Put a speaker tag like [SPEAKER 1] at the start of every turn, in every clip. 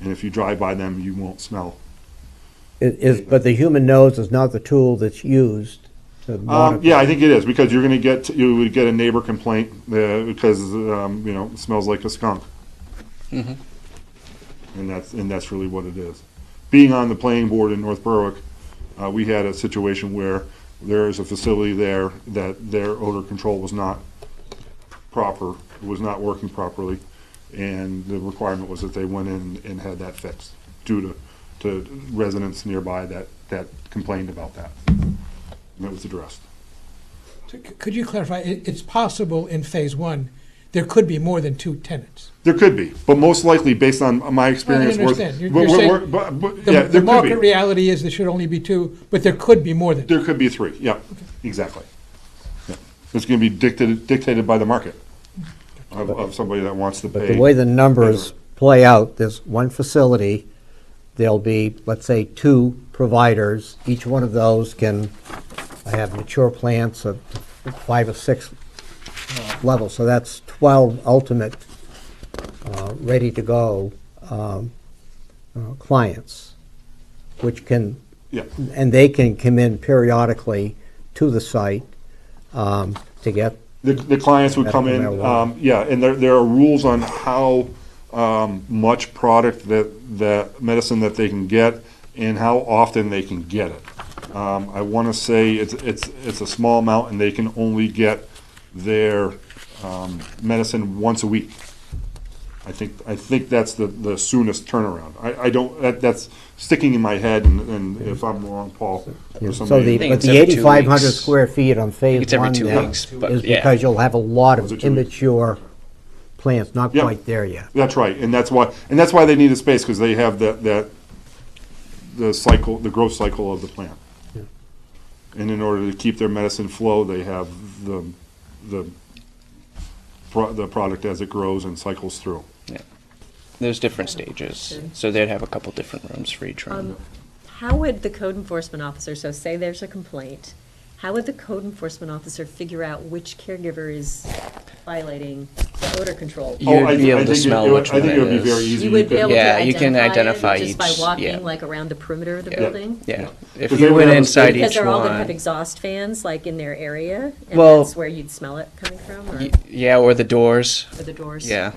[SPEAKER 1] And if you drive by them, you won't smell.
[SPEAKER 2] It is, but the human nose is not the tool that's used to
[SPEAKER 1] Um,
[SPEAKER 2] monitor.
[SPEAKER 1] yeah, I think it is because you're going to get you would get a neighbor complaint uh, because um, you know it smells like a skunk, and that's and that's really what it is. Being on the planning board in North Berwick, uh, we had a situation where there is a facility there that their odor control was not proper, was not working properly, and the requirement was that they went in and had that fixed due to to residents nearby that that complained about that, and it was addressed.
[SPEAKER 3] So c- Could you clarify, it, it's possible in phase one, there could be more than two tenants?
[SPEAKER 1] There could be, but most likely, based on my experience, we're-
[SPEAKER 3] understand. You're-
[SPEAKER 1] we're-
[SPEAKER 3] you're
[SPEAKER 1] we're-
[SPEAKER 3] saying
[SPEAKER 1] but- but-
[SPEAKER 3] The-
[SPEAKER 1] yeah, there
[SPEAKER 3] The
[SPEAKER 1] could
[SPEAKER 3] market
[SPEAKER 1] be.
[SPEAKER 3] reality is there should only be two, but there could be more than. two.
[SPEAKER 1] There could be three, yeah, exactly. Yeah. It's gonna be dictated, dictated by the market of, of somebody that wants to
[SPEAKER 2] But
[SPEAKER 1] pay.
[SPEAKER 2] the way the numbers play out, there's one facility, there'll be, let's say, two providers. Each one of those can have mature plants of five or six levels. So that's 12 ultimate, uh, ready-to-go um, uh, clients, which can
[SPEAKER 1] Yeah,
[SPEAKER 2] and they can come in periodically to the site um, to get,
[SPEAKER 1] the, the clients would come in,
[SPEAKER 2] Medical marijuana.
[SPEAKER 1] um, yeah, and there, there are rules on how, um, much product that, that medicine that they can get and how often they can get it. Um, I wanna say it's, it's, it's a small amount and they can only get their, um, medicine once a week. I think, I think that's the, the soonest turnaround. I, I don't, that, that's sticking in my head and, and if I'm wrong, Paul, or
[SPEAKER 2] so the,
[SPEAKER 1] somebody.
[SPEAKER 2] but
[SPEAKER 4] it's
[SPEAKER 2] the
[SPEAKER 4] every two
[SPEAKER 2] 8,500
[SPEAKER 4] weeks.
[SPEAKER 2] square feet on phase
[SPEAKER 4] it's every
[SPEAKER 2] one
[SPEAKER 4] two
[SPEAKER 2] there
[SPEAKER 4] weeks,
[SPEAKER 2] is
[SPEAKER 4] but yeah.
[SPEAKER 2] because you'll have a lot
[SPEAKER 1] Was it
[SPEAKER 2] of
[SPEAKER 1] two weeks?
[SPEAKER 2] immature plants, not
[SPEAKER 1] Yeah.
[SPEAKER 2] quite there yet.
[SPEAKER 1] That's right, and that's why, and that's why they need a space, because they have that, that, the cycle, the growth cycle of the plant. And in order to keep their medicine flow, they have the, the, pro- the product as it grows and cycles through.
[SPEAKER 4] There's different stages, so they'd have a couple different rooms for each
[SPEAKER 5] Um,
[SPEAKER 4] room.
[SPEAKER 5] How would the code enforcement officer, so say there's a complaint, how would the code enforcement officer figure out which caregiver is violating the odor control?
[SPEAKER 4] You'd
[SPEAKER 1] Oh, I-
[SPEAKER 4] be
[SPEAKER 1] I
[SPEAKER 4] able to
[SPEAKER 1] think it-
[SPEAKER 4] smell
[SPEAKER 1] it would-
[SPEAKER 4] which
[SPEAKER 1] I think
[SPEAKER 4] one
[SPEAKER 1] it
[SPEAKER 4] it
[SPEAKER 1] would be very
[SPEAKER 4] is.
[SPEAKER 1] easy.
[SPEAKER 5] You would be able to
[SPEAKER 4] Yeah, you can
[SPEAKER 5] identify
[SPEAKER 4] identify
[SPEAKER 5] it just by
[SPEAKER 4] each- yeah.
[SPEAKER 5] walking like around the perimeter of the
[SPEAKER 4] Yeah.
[SPEAKER 5] building?
[SPEAKER 4] Yeah, if
[SPEAKER 1] Because they
[SPEAKER 4] you
[SPEAKER 1] would
[SPEAKER 4] went
[SPEAKER 1] have a
[SPEAKER 4] inside
[SPEAKER 1] space-
[SPEAKER 5] Because
[SPEAKER 4] each
[SPEAKER 5] they're all gonna have
[SPEAKER 4] one,
[SPEAKER 5] exhaust fans like in their area? And
[SPEAKER 4] Well-
[SPEAKER 5] that's where you'd smell it coming from or
[SPEAKER 4] y- yeah, or the doors,
[SPEAKER 5] or the doors?
[SPEAKER 4] yeah.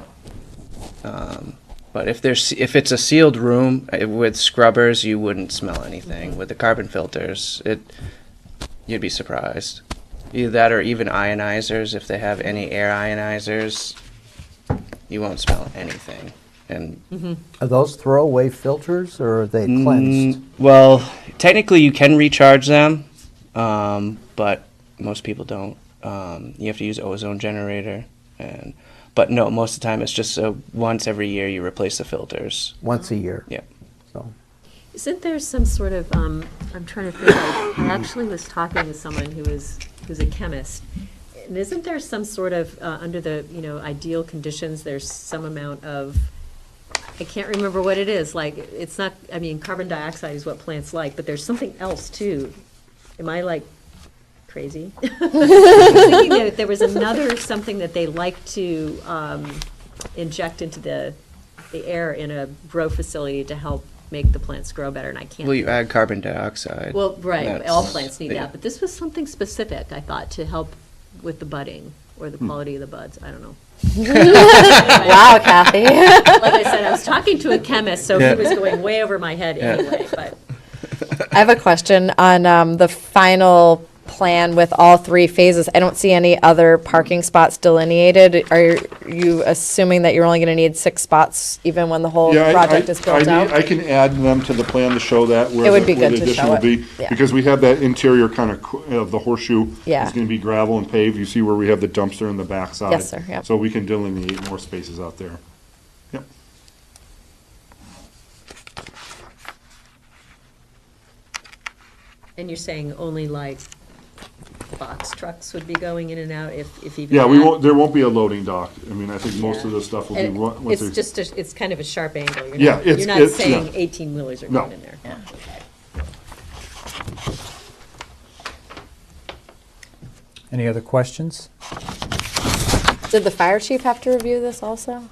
[SPEAKER 4] Um, But if there's, if it's a sealed room uh, with scrubbers, you wouldn't smell
[SPEAKER 5] Mm-hmm.
[SPEAKER 4] anything. With the carbon filters, it, you'd be surprised. Either that or even ionizers, if they have any air ionizers, you won't smell anything. And
[SPEAKER 2] Are those throwaway filters or are they
[SPEAKER 4] Mm,
[SPEAKER 2] cleansed?
[SPEAKER 4] well, technically, you can recharge them, um, but most people don't. Um, you have to use ozone generator, and but no, most of the time it's just uh once every year you replace the filters.
[SPEAKER 2] Once a year?
[SPEAKER 4] Yeah.
[SPEAKER 2] So,
[SPEAKER 5] Isn't there some sort of, um, I'm trying to think, like, I actually was talking with someone who is, who's a chemist. And isn't there some sort of, uh, under the, you know, ideal conditions, there's some amount of, I can't remember what it is, like, it's not, I mean, carbon dioxide is what plants like, but there's something else too. Am I like crazy? I was thinking that There was another, something that they like to, um, inject into the, the air in a grow facility to help make the plants grow better, and I can't.
[SPEAKER 4] Well, you add carbon dioxide.
[SPEAKER 5] Well, right, all
[SPEAKER 4] That's-
[SPEAKER 5] plants need
[SPEAKER 4] yeah.
[SPEAKER 5] that, but this was something specific, I thought, to help with the budding or
[SPEAKER 4] Hmm.
[SPEAKER 5] the quality of the buds, I don't know.
[SPEAKER 6] Wow, Kathy.
[SPEAKER 5] Like I said, I was talking to a chemist, so
[SPEAKER 4] Yeah.
[SPEAKER 5] he was going way over my head anyway, but.
[SPEAKER 6] I have a question on um, the final plan with all three phases. I don't see any other parking spots delineated. Are you assuming that you're only going to need six spots even when the whole
[SPEAKER 1] Yeah, I-
[SPEAKER 6] project
[SPEAKER 1] I-
[SPEAKER 6] is
[SPEAKER 1] I
[SPEAKER 6] built
[SPEAKER 1] need- I
[SPEAKER 6] out?
[SPEAKER 1] can add them to the plan to show that where
[SPEAKER 6] It would
[SPEAKER 1] the-
[SPEAKER 6] be
[SPEAKER 1] where the
[SPEAKER 6] good to
[SPEAKER 1] addition
[SPEAKER 6] show
[SPEAKER 1] will
[SPEAKER 6] it.
[SPEAKER 1] be.
[SPEAKER 6] Yeah.
[SPEAKER 1] Because we have that interior kind of, qu- of the horseshoe.
[SPEAKER 6] Yeah.
[SPEAKER 1] It's gonna be gravel and paved. You see where we have the dumpster in the backside.
[SPEAKER 6] Yes, sir, yep.
[SPEAKER 1] So we can delineate more spaces out there. Yep.
[SPEAKER 5] And you're saying only like box trucks would be going in and out if, if even.
[SPEAKER 1] Yeah, we
[SPEAKER 5] that?
[SPEAKER 1] won't, there won't be a loading dock. I mean, I think most of
[SPEAKER 5] Yeah.
[SPEAKER 1] the stuff will be.
[SPEAKER 5] And
[SPEAKER 1] run- once
[SPEAKER 5] It's
[SPEAKER 1] they-
[SPEAKER 5] just, a- it's kind of a sharp angle, you're
[SPEAKER 1] Yeah,
[SPEAKER 5] not,
[SPEAKER 1] it's-
[SPEAKER 5] you're not
[SPEAKER 1] it's- yeah.
[SPEAKER 5] saying eighteen wheelers are
[SPEAKER 1] No.
[SPEAKER 5] going in there.
[SPEAKER 7] Any other questions?
[SPEAKER 6] Did the fire chief have to review this also?